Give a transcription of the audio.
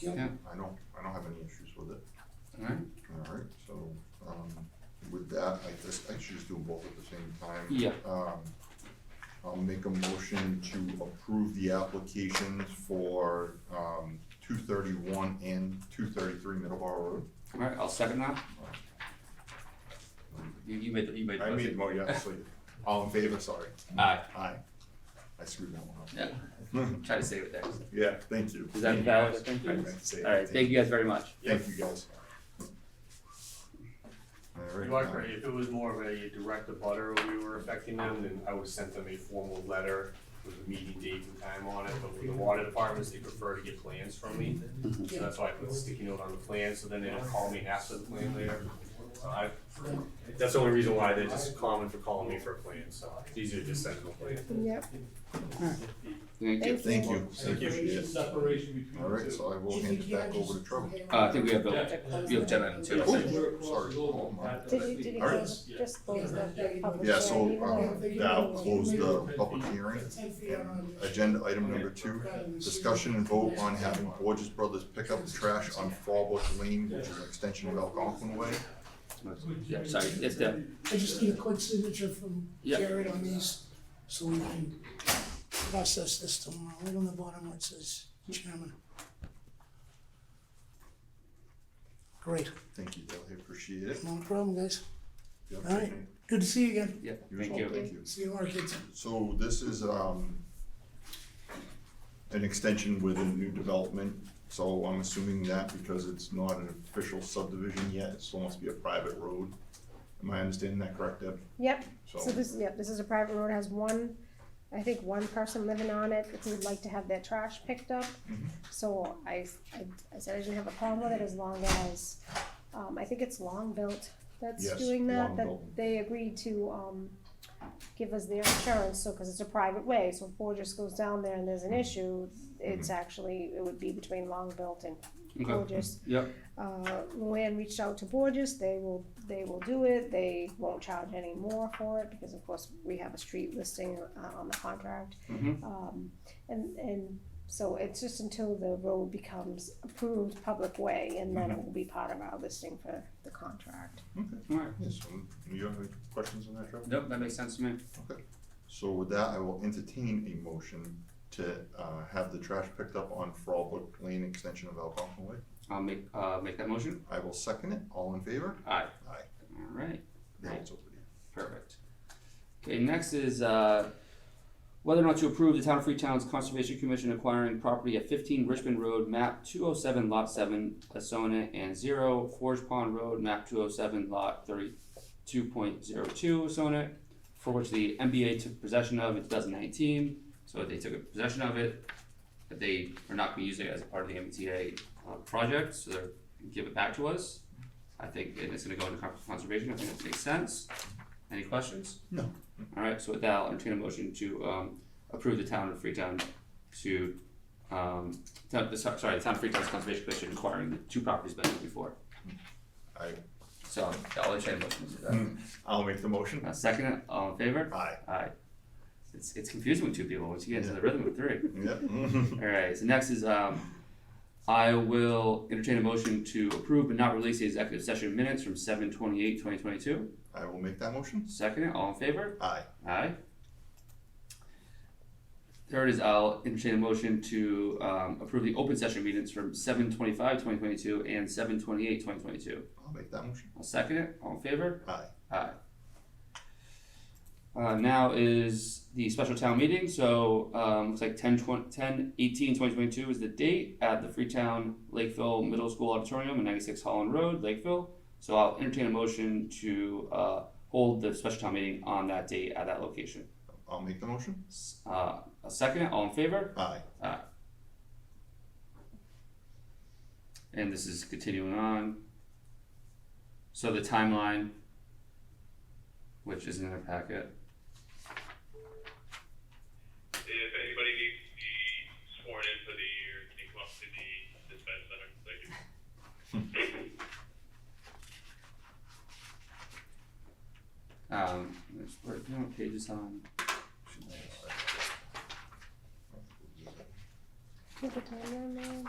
Yeah. I don't, I don't have any issues with it, Alright, all right, so, um, with that, I just, I should just do them both at the same time. Yeah. Um, I'll make a motion to approve the applications for, um, two thirty-one and two thirty-three Middleborough Road. alright, I'll second that. You, you made the, you made the I made, motion. well, yeah, so, all in favor, sorry, Aye, aye, I screwed that one up. yeah, try to save it there. Yeah, thank you. Is that valid? Thank I meant you. to say that. Alright, thank you guys very much. Thank you guys. All right. uh, Like, right, if it was more of a direct abutter we were affecting them, then I would send them a formal letter with a meeting date and time on it, but with the water departments, they prefer to get plans from me. So that's why I put a sticky note on the plan, so then they don't call me after the plan later. So I, that's the only reason why they're just common for calling me for a plan, so it's easier to just send them a plan. Yep, Thank you. Thank Thank you. Thank you. Appreciate it. Separation All between right, the two. so I will hand it back over to Trevor. Uh, I think we have the, you have agenda item two, I think. Oh, sorry. Oh, my. did you, did you All right. close, just close the public Yeah, so, hearing? um, that'll close the public hearing. And Agenda item number two, discussion and vote on having Borges Brothers pick up trash on Fallbrook Lane, which is an extension of Algonquin Way. Yeah, sorry, it's the, I just need a quick signature from Yeah. Jared on these, so we can process this tomorrow, right on the bottom where it says chairman. Great, Thank you, Dale, appreciate it. no problem, guys, Yeah, all right, good to see you again, yeah, Yours thank all, you. Thank you. see you tomorrow, kids. So this is, um, an extension with a new development, so I'm assuming that because it's not an official subdivision yet, it still must be a private road. Am I understanding that correct, Deb? Yep, so So, this, yep, this is a private road, has one, I think one person living on it, if you'd like to have their trash picked up. Mm-hmm. So I, I, I said I didn't have a problem with it as long as, um, I think it's Long Built that's Yes, doing that, Long that Built. they agreed to, um, give us their insurance, so, cause it's a private way, so if Borges goes down there and there's Mm-hmm. an issue, it's actually, it would be between Long Built and Okay, Borges. yep, Uh, Luann reached out to Borges, they will, they will do it, they won't charge any more for it, because of course, we have a street listing uh, on the contract. Mhm. Um, and, and so it's just until the road becomes approved public way, and then it will be part of our listing for the contract. alright, yes, um, you have any questions on that, Trevor? nope, that makes sense to me. So with that, I will entertain a motion to, uh, have the trash picked up on Frolic Lane Extension of Algonquin Way. I'll make, uh, make that motion, I will second it, all in favor? aye. Aye. Alright, Now it's over to you. Perfect. Okay, next is, uh, whether or not to approve the Town of Freetown's Conservation Commission acquiring property at fifteen Richmond Road, map two oh seven lot seven, Asona and zero, Forge Pond Road, map two oh seven lot thirty-two point zero two, Asona, for which the MBA took possession of in two thousand nineteen, so they took possession of it, but they are not gonna use it as a part of the MBTA, uh, project, so they're, give it back to us. I think, and it's gonna go into con- conservation, I think that makes sense. Any questions? No. Alright, so with that, I'll entertain a motion to, um, approve the town of Freetown to, um, town, the, sorry, the town of Freetown's Conservation Commission acquiring the two properties mentioned before. I, So, I'll entertain a motion to do I'll make the motion. that. Uh, second, it, all in favor? Aye. Aye. It's, it's confusing with two people, once you get into the rhythm of three. Yep. Alright, so next is, um, I will entertain a motion to approve but not release the executive session minutes from seven twenty-eight, twenty twenty-two. I will make that motion. Second, it, all in favor? Aye. Aye. Third is I'll entertain a motion to um approve the open session minutes from seven twenty-five, twenty twenty-two and seven twenty-eight, twenty twenty-two. I'll make that motion. I'll second it, all in favor? Aye. Aye. Uh, now is the special town meeting, so, um, looks like 10 20 10 18 2022 is the date at the Freetown Lakeville Middle School Auditorium in ninety-six Holland Road, Lakeville. So I'll entertain a motion to, uh, hold the special town meeting on that date at that location. I'll make the motion. S- Uh, a second, all in favor? Aye. And this is continuing on. So the timeline, which is in our packet. If anybody needs to be sworn in for the year, can you come up to the dispatch center? Thank you. Um, there's, where, you know, pages on. Take your time, man.